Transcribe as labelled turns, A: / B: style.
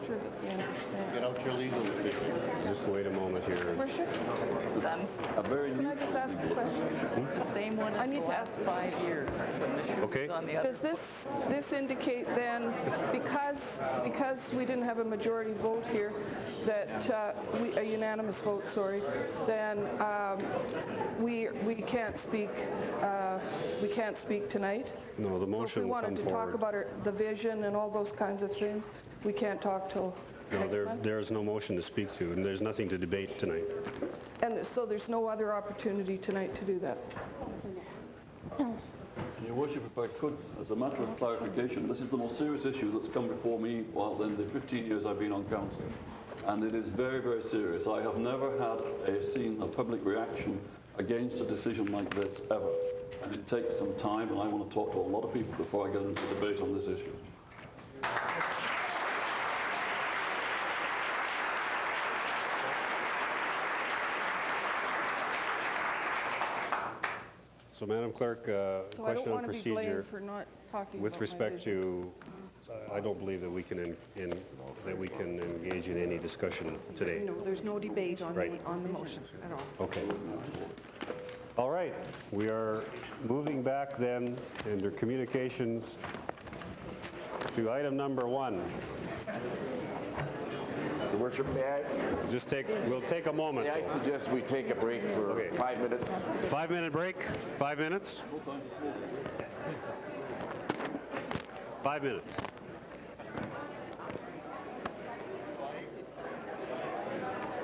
A: picture?
B: Done.
C: A very
A: Can
C: new.
A: I just ask a question?
B: Same one
A: I
B: as
A: need
B: the
A: to
B: last five years. when the shoe
D: Okay.
B: was on the other.
A: Does this, this indicate then, because, because we didn't have a majority vote here, that, uh, we, a unanimous vote, sorry, then, um, we, we can't speak, uh, we can't speak tonight?
D: No,
A: So
D: the
A: if we
D: motion will come
A: wanted to talk
D: forward.
A: about our- the vision and all those kinds of things, we can't talk till
D: No,
A: next
D: there,
A: month?
D: there is no motion to speak to, and there's nothing to debate tonight.
A: And so there's no other opportunity tonight to do that?
C: Your worship, if I could, as a matter of clarification, this is the most serious issue that's come before me while in the 15 years I've been on council. And it is very, very serious. I have never had a, seen a public reaction against a decision like this ever. And it takes some time, and I want to talk to a lot of people before I get into debate on this issue.
D: So Madam Clerk, uh,
A: So I don't
D: question on
A: want to be
D: procedure.
A: blamed for not talking about
D: With
A: my
D: respect
A: vision.
D: to, I don't believe that we can, en- en- that we can engage in any discussion today.
E: No, there's no debate on the,
D: Right.
E: on the motion at all.
D: Okay. All right, we are moving back then under communications to item number one.
F: Your Worship, may I,
D: Just take, we'll take a moment.
F: may I suggest we take a break for
D: Okay.
F: five minutes?
D: Five-minute break, five minutes? Five minutes.